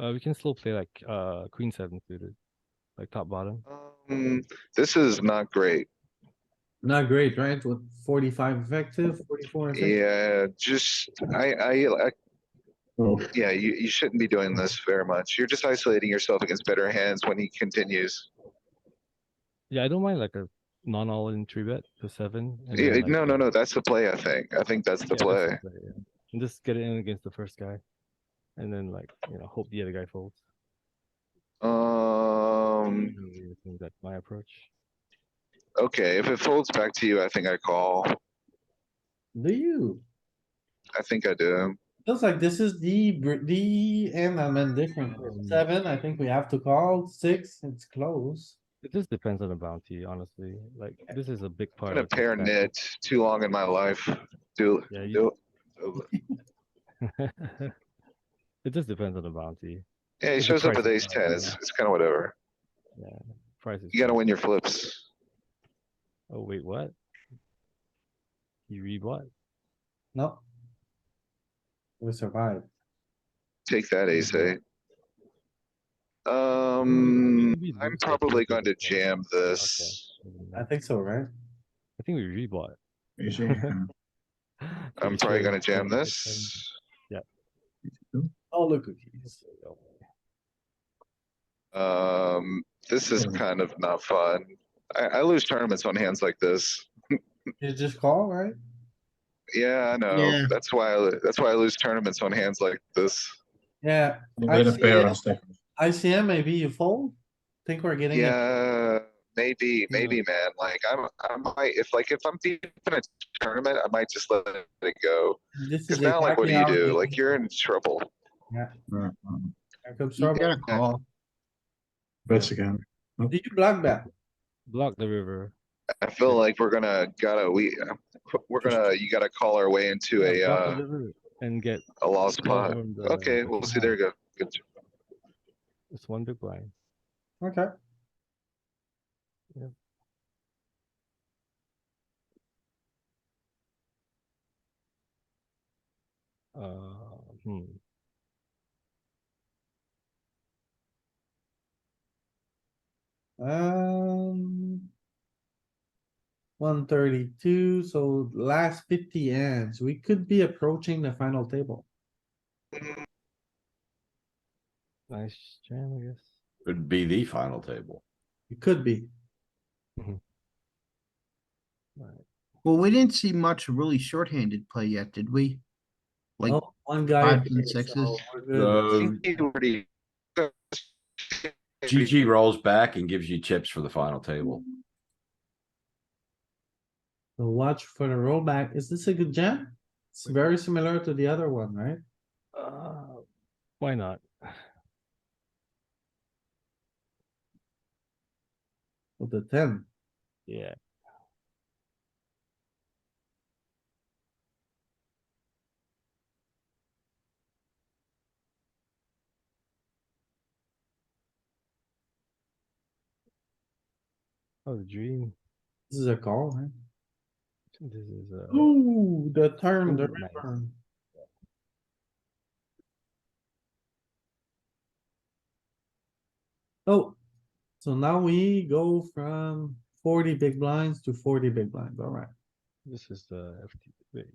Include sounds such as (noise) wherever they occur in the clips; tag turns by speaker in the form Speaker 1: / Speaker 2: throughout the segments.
Speaker 1: Uh, we can still play like uh queen seven suited, like top bottom.
Speaker 2: Um, this is not great.
Speaker 3: Not great, right? With forty-five effective, forty-four effective.
Speaker 2: Yeah, just, I, I, I. Yeah, you, you shouldn't be doing this very much. You're just isolating yourself against better hands when he continues.
Speaker 1: Yeah, I don't mind like a non all in three bet to seven. and
Speaker 2: Yeah,
Speaker 1: then, like,
Speaker 2: Eh, no, no,
Speaker 1: uh,
Speaker 2: no, that's the play, I think. I think that's the
Speaker 1: yeah, that's
Speaker 2: play.
Speaker 1: the play, yeah. And just get it in against the first guy, and then like you know hope the other guy folds.
Speaker 2: Um,
Speaker 1: Usually, I think that's my approach.
Speaker 2: okay, if it folds back to you, I think I call.
Speaker 3: Do you?
Speaker 2: I think I do.
Speaker 3: Feels like this is the, br- the end I'm indifferent. with.
Speaker 2: Mm.
Speaker 3: Seven, I think we have to call. Six, it's close.
Speaker 1: It just depends on the bounty, honestly. Like this is a big
Speaker 2: I'm
Speaker 1: part.
Speaker 2: gonna
Speaker 1: of the
Speaker 2: pair
Speaker 1: stack.
Speaker 2: knit too long in my life. Do,
Speaker 1: Yeah, you-
Speaker 2: do.
Speaker 1: (laughs) it just depends on the bounty.
Speaker 2: Yeah, he
Speaker 1: It's a
Speaker 2: shows up with
Speaker 1: crisis
Speaker 2: ace ten. It's, it's kinda whatever.
Speaker 1: Price is.
Speaker 2: You gotta
Speaker 1: fixed.
Speaker 2: win your flips.
Speaker 1: Oh wait, what? You read what?
Speaker 3: No. We survived.
Speaker 2: Take that ace eight. Um,
Speaker 1: we
Speaker 2: I'm
Speaker 1: lose that
Speaker 2: probably
Speaker 1: ace
Speaker 2: going to
Speaker 1: eight, right?
Speaker 2: jam this.
Speaker 3: I think so, right?
Speaker 1: I think we rebought.
Speaker 4: You see, um,
Speaker 2: I'm probably gonna jam this.
Speaker 3: Oh, look, cookies.
Speaker 1: uh,
Speaker 2: Um, this is kind of not fun. I, I lose tournaments on hands like this.
Speaker 3: You just call, right?
Speaker 2: Yeah, I know. That's why, I that's why I lose tournaments on hands like this.
Speaker 3: Yeah,
Speaker 4: you
Speaker 3: I
Speaker 4: get a
Speaker 3: see
Speaker 4: pair
Speaker 3: it.
Speaker 4: on second.
Speaker 3: ICM, maybe you fold? Think we're getting it.
Speaker 2: Yeah, maybe, maybe, man. Like, I'm, I might, if like, if I'm deep in a tournament, I might just let it go.
Speaker 3: This
Speaker 2: Cause
Speaker 3: is
Speaker 2: now, like, what do you
Speaker 3: exactly how
Speaker 2: do?
Speaker 3: we-
Speaker 2: Like, you're in trouble.
Speaker 4: Uh, um,
Speaker 3: Here comes
Speaker 5: You
Speaker 3: trouble.
Speaker 5: gotta call.
Speaker 4: Bets again.
Speaker 3: Do you block that?
Speaker 1: Block the river.
Speaker 2: I feel like we're gonna gotta we we're gonna you gotta call our way into a
Speaker 1: Yeah, block the
Speaker 2: uh,
Speaker 1: river And get.
Speaker 2: a lost pot.
Speaker 1: overwhelmed, uh,
Speaker 2: Okay, we'll see. There you go. Good.
Speaker 1: It's one big blind.
Speaker 3: Okay.
Speaker 1: Yeah. Uh, hmm.
Speaker 3: Um. One thirty-two, so last fifty hands, we could be approaching the final table.
Speaker 1: Nice jam, I guess.
Speaker 6: Would be the final table.
Speaker 3: It could be.
Speaker 5: Well, we didn't see much really shorthanded play yet, did we? Like,
Speaker 3: Oh, one guy.
Speaker 5: fives and
Speaker 3: appeared, so
Speaker 5: sixes.
Speaker 3: we're good.
Speaker 2: Uh,
Speaker 6: So
Speaker 1: Um,
Speaker 6: GG rolls back and gives you chips for the final table.
Speaker 3: So watch for the rollback. Is this a good jam? It's very similar to the other one, right?
Speaker 1: Uh, why not?
Speaker 3: With the ten.
Speaker 1: Yeah, that was a Oh, dream.
Speaker 3: This is a call, right?
Speaker 1: This is uh
Speaker 3: Ooh, the turn, the
Speaker 1: Ooh, nice.
Speaker 3: river. Oh, so now we go from forty big blinds to forty big blinds, alright.
Speaker 1: this is the FT. Wait.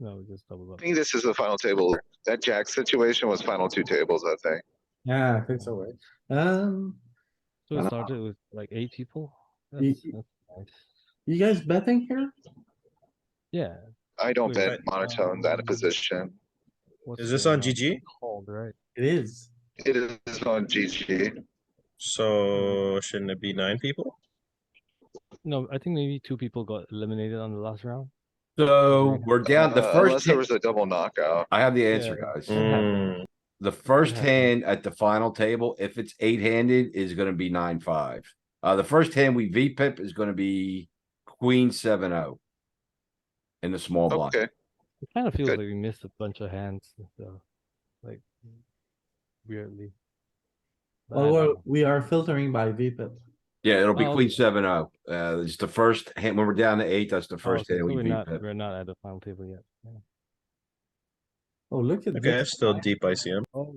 Speaker 1: No, we just double
Speaker 2: I
Speaker 1: up.
Speaker 2: think this is the final table. That jack situation was final two tables. I think.
Speaker 3: Yeah, I think so, right? Um,
Speaker 1: So it started with like eight people.
Speaker 3: Ye-
Speaker 1: That's, that's nice.
Speaker 3: you guys betting here?
Speaker 1: Yeah.
Speaker 2: I don't
Speaker 1: Wait,
Speaker 2: bet
Speaker 1: but,
Speaker 2: monotone that
Speaker 1: um,
Speaker 2: position.
Speaker 1: what's
Speaker 7: Is this
Speaker 1: going
Speaker 7: on GG?
Speaker 1: Called right.
Speaker 3: It is.
Speaker 2: It is on GG.
Speaker 7: So shouldn't it be nine people?
Speaker 1: No, I think maybe two people got eliminated on the last round.
Speaker 6: So we're down the
Speaker 2: Uh, Unless
Speaker 6: first,
Speaker 2: there
Speaker 6: hand-
Speaker 2: was a double knockout.
Speaker 6: I have the answer, guys.
Speaker 7: Mm,
Speaker 6: The first
Speaker 1: Yeah.
Speaker 6: hand at the final table, if it's eight handed, is gonna be nine, five. Uh, the first hand we V pip is gonna be queen seven oh. In the small blind.
Speaker 2: Okay,
Speaker 1: It kind of feels
Speaker 2: Good.
Speaker 1: like we missed a bunch of hands, so like weirdly. But I
Speaker 3: Oh, Well, we're-
Speaker 1: don't know.
Speaker 3: we are filtering by VPIP.
Speaker 6: Yeah, it'll be
Speaker 1: Oh,
Speaker 6: queen
Speaker 1: okay.
Speaker 6: seven oh. Uh, it's the first hand, when we're down to eight, that's the
Speaker 1: Oh,
Speaker 6: first
Speaker 1: okay,
Speaker 6: hand
Speaker 1: so
Speaker 6: we
Speaker 1: we're
Speaker 6: V
Speaker 1: not
Speaker 6: pip.
Speaker 1: we're not at the final table yet. Yeah.
Speaker 3: Oh, look at
Speaker 7: okay,
Speaker 3: this. Oh,
Speaker 7: still deep ICM.